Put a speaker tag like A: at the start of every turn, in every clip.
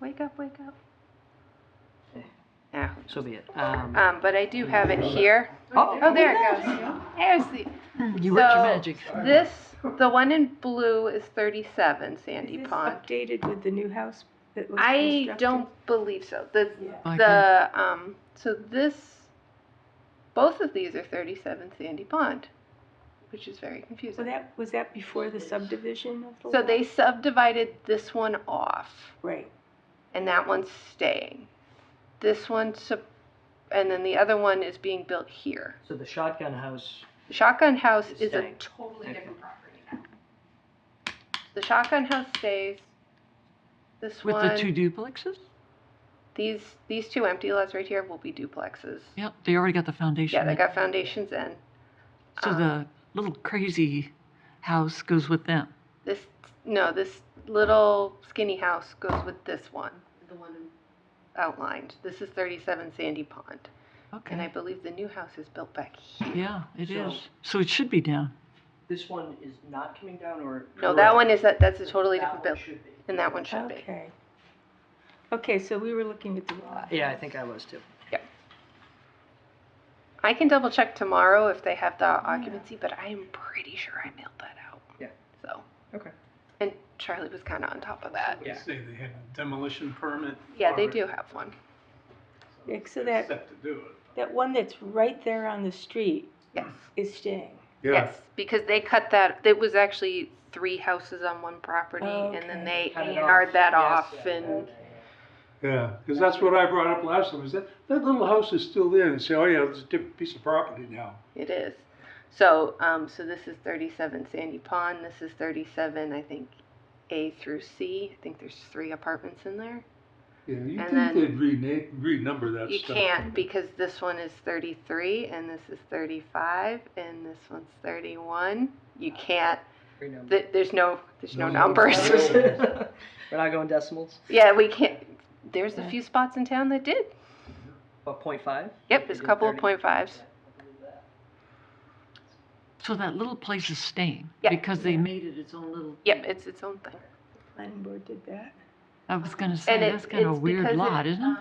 A: wake up, wake up.
B: So be it. Um,
A: Um, but I do have it here.
B: oh,
A: Oh, there it goes. There's the,
B: you worked
A: so
B: your magic.
A: this, the one in blue is thirty-seven Sandy
C: Is this
A: Pond.
C: updated with the new house that was
A: I
C: constructed?
A: don't believe so. The,
B: I can-
A: the, um, so this, both of these are thirty-seven Sandy Pond, which is very
C: So
A: confusing.
C: that, was that before the subdivision of the
A: So
C: lot?
A: they subdivided this one off.
C: Right,
A: and that one's staying. This one, sup- and then the other one is being built here.
B: so the shotgun house.
A: Shotgun House
B: It's
A: is a
B: staying.
A: totally
B: Okay.
A: different property now. The Shotgun House stays. This
D: With
A: one,
D: the two duplexes?
A: these these two empty lots right here will be duplexes.
D: Yep, they already got the foundation.
A: Yeah, they
D: in.
A: got foundations in.
D: So
A: um,
D: the little crazy house goes with them.
A: This no, this little skinny house goes with this one. The one outlined. This is 37 Sandy Pond, and I
D: Okay.
A: believe the new house is built back here.
D: Yeah, it
B: So-
D: is. So it should be down.
B: This one is not coming down, or
A: No, that
B: correct?
A: one is, that. that's a totally
B: That
A: different
B: one
A: build,
B: should be.
A: and that one should be.
C: okay. Okay, so we were looking at the lot.
B: Yeah, I think I was too.
A: I can double check tomorrow if they have the occupancy, but I am pretty sure I mailed that out.
B: Yeah.
A: So.
B: Okay.
A: And Charlie was kind of on top of that.
B: Yeah.
E: They say they had a demolition permit.
A: Yeah, they
E: already,
A: do have one.
C: Yeah, so
E: they're
C: that-
E: set to do it.
C: That one that's right there on the street
A: Yes.
C: is staying.
A: Yes, because they cut that, it was actually three houses on one property,
C: Oh,
A: and then
C: okay.
A: they A&R'd that off and,
F: Yeah, because that's what I brought up last time, is that, that little house is still there, and say, oh yeah, it's a different piece of property now.
A: It is. So, um, so this is thirty-seven Sandy Pond, this is thirty-seven, I think, A through C, I think there's three apartments in there.
F: Yeah, you
A: And
F: think
A: then-
F: they'd rename, renumber that
A: You
F: stuff?
A: can't because this one is thirty-three and this is thirty-five and this one's thirty-one. You can't,
B: Renumber.
A: th- there's no, there's no
F: No.
A: numbers.
B: We're not going decimals.
A: Yeah, we can't, there's a few spots in town that did.
B: What, point five?
A: Yep, there's a couple of point fives.
D: So that little place is staying.
A: Yeah.
D: Because they made it its own little,
A: Yep, it's its own thing.
C: Planning board did that.
D: I was gonna say,
A: And it-
D: that's kind of a
A: it's
D: weird
A: because
D: lot, isn't it?
A: um,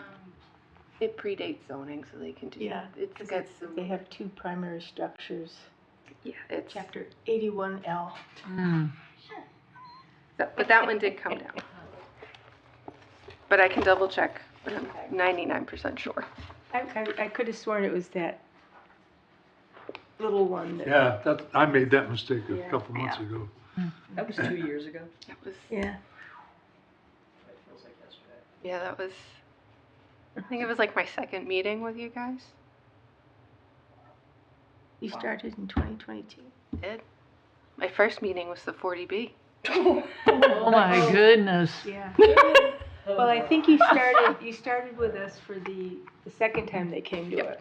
A: It predates zoning, so they can do
C: Yeah,
A: that. It's
C: Because
A: got
C: it's,
A: some-
C: they have two primary structures,
A: yeah, it's,
C: chapter eighty-one L.
D: Mm.
A: but that one did come down. But I can double check, but I'm ninety-nine percent sure.
C: I, I, I could have sworn it was that little one that.
F: Yeah, that, I made that mistake a
C: Yeah.
F: couple months ago.
B: That was two years ago.
A: That was,
C: Yeah,
B: It feels like yesterday.
A: yeah, that was, I think it was like my second meeting with you guys.
C: you started in twenty twenty-two.
A: Did. My first meeting was the forty B.
D: Oh my goodness.
C: Yeah. Well, I think you started, you started with us for the, the second time they came to us,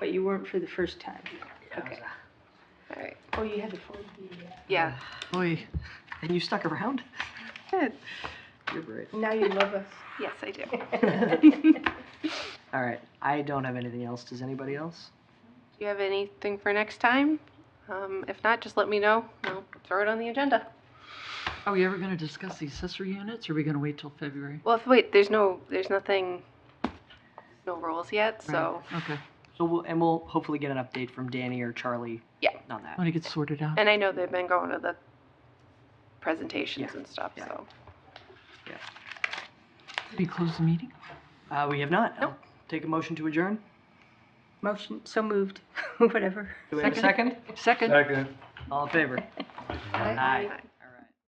C: but you weren't for the first time.
B: Yeah, I was, uh,
A: Alright,
C: Oh, you had the forty B,
A: yeah.
D: Boy,
B: And you stuck around?
A: Good.
B: You're brave.
C: Now you love us.
A: Yes, I do.
B: All right, I don't have anything else. Does anybody else?
A: Do you have anything for next time? Um, if not, just let me know. I'll throw it on the agenda.
D: are we ever gonna discuss the accessory units or are we gonna wait till February?
A: Well, if, wait, there's no, there's nothing, no rules yet, so,
D: Right, Okay,
B: So we'll, and we'll hopefully get an update from Danny or Charlie.
A: Yeah.
B: On that.
D: when it gets sorted out.
A: and I know they've been going to the presentations
B: Yeah,
A: and stuff,
B: yeah.
A: so.
D: Did we close the meeting?
B: Uh, we have not. I'll
A: Nope.
B: Take a motion to adjourn.
C: Motion, so moved, whatever.
B: Do we have a second?
D: Second?
F: Second.
B: All in favor? Aye.
A: Bye.